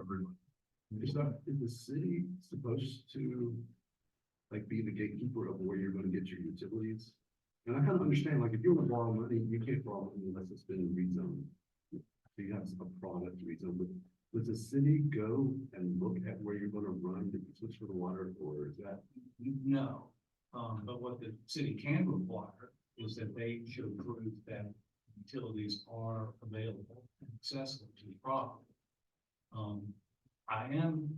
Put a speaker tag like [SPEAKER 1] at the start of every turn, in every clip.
[SPEAKER 1] everyone. Is not, is the city supposed to, like, be the gatekeeper of where you're gonna get your utilities? And I kind of understand, like, if you want to borrow money, you can't borrow money unless it's been rezoned. So you have a product rezoned, but does the city go and look at where you're gonna run the switch for the water, or is that?
[SPEAKER 2] No, um, but what the city can require is that they should prove that utilities are available and accessible to the property. Um, I am,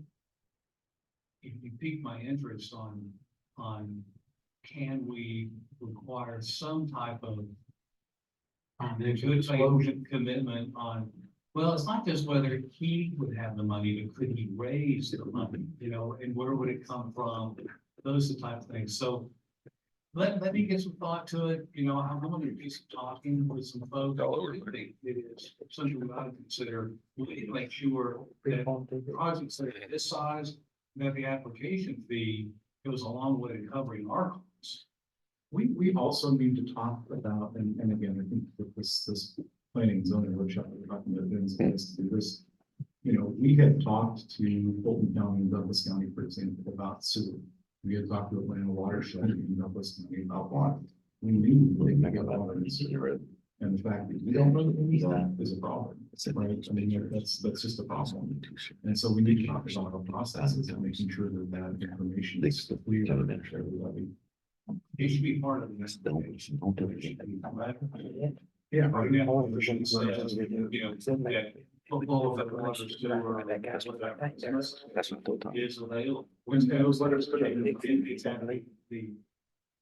[SPEAKER 2] if you pique my interest on, on can we require some type of good faith commitment on, well, it's not just whether he would have the money, but could he raise the money, you know, and where would it come from? those are the type of things, so. Let, let me get some thought to it, you know, I'm gonna do some talking with some folks.
[SPEAKER 3] All over.
[SPEAKER 2] I think It is something we ought to consider, we need to make sure that projects that are this size, that the application fee goes a long way to covering our costs.
[SPEAKER 4] We, we also need to talk about, and, and again, I think that this, this planning and zoning workshop, we're talking about doing some of this, do this. You know, we had talked to Fulton County and Douglas County, for example, about sewer. We had talked to Atlanta Watershed and Douglas County about water. We knew they could get water and sewer. And the fact that we don't really need that is a problem. Right, I mean, that's, that's just a problem. And so we need to talk about our processes and making sure that that information is clear and that everybody
[SPEAKER 2] It should be part of this.
[SPEAKER 4] Yeah.
[SPEAKER 2] Right now, all the things that, you know, that football, that waters do, or whatever
[SPEAKER 3] That's what I thought.
[SPEAKER 2] Is available.
[SPEAKER 4] Wednesday, those letters could have been-
[SPEAKER 2] Exactly, the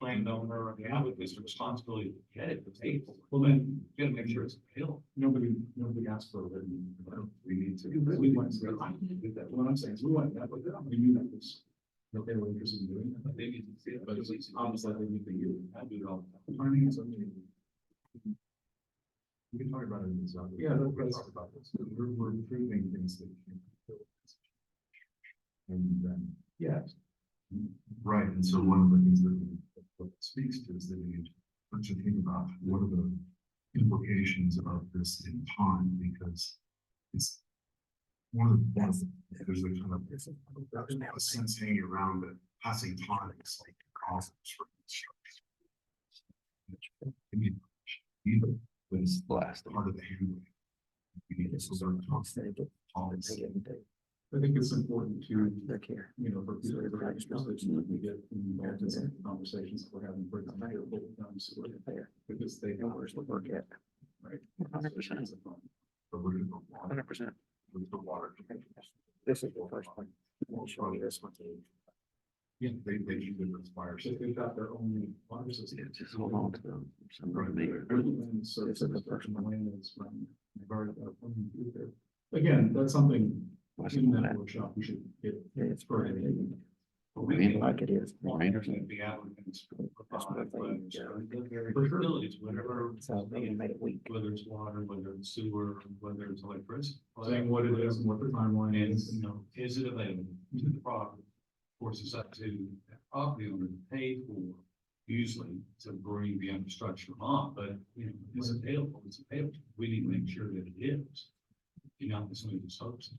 [SPEAKER 2] landowner or the applicant's responsibility to get it, to pay for it.
[SPEAKER 4] Well, then,
[SPEAKER 2] You gotta make sure it's available.
[SPEAKER 4] nobody, nobody asked for a written, we need to, we went, through- I didn't do that, what I'm saying is, we went that way, we knew that was. That they were interested in doing that,
[SPEAKER 2] They need to see it.
[SPEAKER 4] but it was obviously, they need to you.
[SPEAKER 2] I do it all.
[SPEAKER 4] Turning is something. We can talk about it in this. Yeah, no, we're talking about this, we're, we're improving things that. you can- And um, then. Yeah.
[SPEAKER 1] Right, and so one of the things that what it speaks to is that you need to think about what are the implications of this in time, because it's one of the, ones that there's a kind of, there's a sense hanging around that passing time is like causes for construction. I mean, Either was
[SPEAKER 3] Blast.
[SPEAKER 1] part of the handling. You need to sort of constant policy.
[SPEAKER 4] I think it's important to
[SPEAKER 3] Look here.
[SPEAKER 4] you know, for people that are interested, you know, we get involved in some conversations that we're having, for example, here, but, um, so we're there, because they. know where to look at. Right.
[SPEAKER 3] 100%.
[SPEAKER 4] It's a problem.
[SPEAKER 1] But we're gonna go water,
[SPEAKER 3] Hundred percent.
[SPEAKER 1] with the water.
[SPEAKER 3] This is the first one.
[SPEAKER 1] Well, probably this one.
[SPEAKER 4] Yeah.
[SPEAKER 1] They, they usually respire.
[SPEAKER 4] So they've got their own water
[SPEAKER 3] Yeah,
[SPEAKER 4] system.
[SPEAKER 3] just hold on to them. Some
[SPEAKER 1] Right.
[SPEAKER 3] of them.
[SPEAKER 4] And so it's a construction land that's run, they've already got a plan to do there. Again, that's something in that workshop, we should get.
[SPEAKER 3] Yeah, it's
[SPEAKER 4] for
[SPEAKER 3] pretty.
[SPEAKER 4] anything.
[SPEAKER 2] But
[SPEAKER 3] I
[SPEAKER 2] we
[SPEAKER 3] mean,
[SPEAKER 2] can-
[SPEAKER 3] like it is.
[SPEAKER 2] Well,
[SPEAKER 3] Right.
[SPEAKER 2] there's gonna be applicants.
[SPEAKER 3] That's what I think, yeah.
[SPEAKER 4] For sure.
[SPEAKER 2] Facilities, whatever,
[SPEAKER 3] So they made it weak.
[SPEAKER 2] whether it's water, whether it's sewer, whether it's electricity.
[SPEAKER 4] Saying what it is and what the timeline
[SPEAKER 2] And,
[SPEAKER 4] is.
[SPEAKER 2] you know, is it available to the property? Of course, it's up to that property owner to pay for, usually to bring the infrastructure on, but, you know, it's available, it's available. We need to make sure that it is. You know, it's something that's hopes.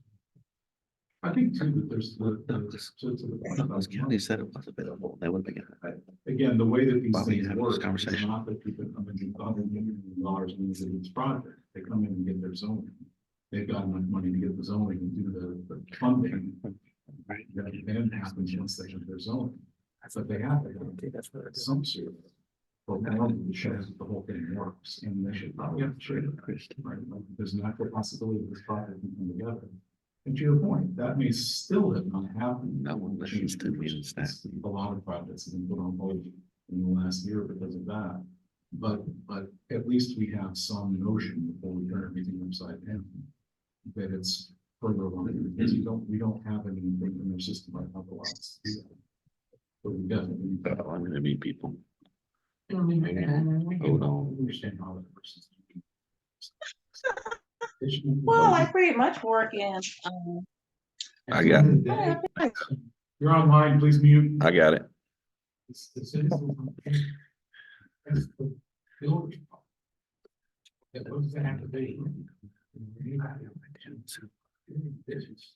[SPEAKER 4] I think too, that there's the,
[SPEAKER 3] No,
[SPEAKER 4] the,
[SPEAKER 3] just-
[SPEAKER 4] to, to the
[SPEAKER 3] One
[SPEAKER 4] point
[SPEAKER 3] of
[SPEAKER 4] about.
[SPEAKER 3] those counties said it was available. They would have been.
[SPEAKER 4] again, the way that these
[SPEAKER 3] Bobby,
[SPEAKER 4] things
[SPEAKER 3] have this
[SPEAKER 4] work. is
[SPEAKER 3] conversation.
[SPEAKER 4] Not that people come in and bother millions of dollars in these cities project, they come in and get their zoning. They've got enough money to get the zoning and do the, the funding,
[SPEAKER 3] Right.
[SPEAKER 4] that then happens once they get their zoning. That's what they have, they don't
[SPEAKER 3] Okay, That's what it is.
[SPEAKER 4] some sort of. But it shows that the whole thing works, and they should probably have traded
[SPEAKER 3] Christie.
[SPEAKER 4] right? Like, There's an actual possibility of this project can come together. And to your point, that may still have not happened.
[SPEAKER 3] No one listens to me, it's that.
[SPEAKER 4] A lot of projects have been put on hold in the last year because of that. But, but at least we have some notion before we turn everything upside down. That it's further along, because we don't, we don't have anything in our system right now for us. But we definitely.
[SPEAKER 3] But I'm gonna be people. Oh,
[SPEAKER 4] Hold
[SPEAKER 3] Hold on.
[SPEAKER 4] Understand how that person's. It should be-
[SPEAKER 5] Well, I pretty much work in, um,
[SPEAKER 3] I got
[SPEAKER 5] I think
[SPEAKER 4] You're online, please mute.
[SPEAKER 3] I got it.
[SPEAKER 4] It's- it's- it's- it's the village. That was the activity. This is-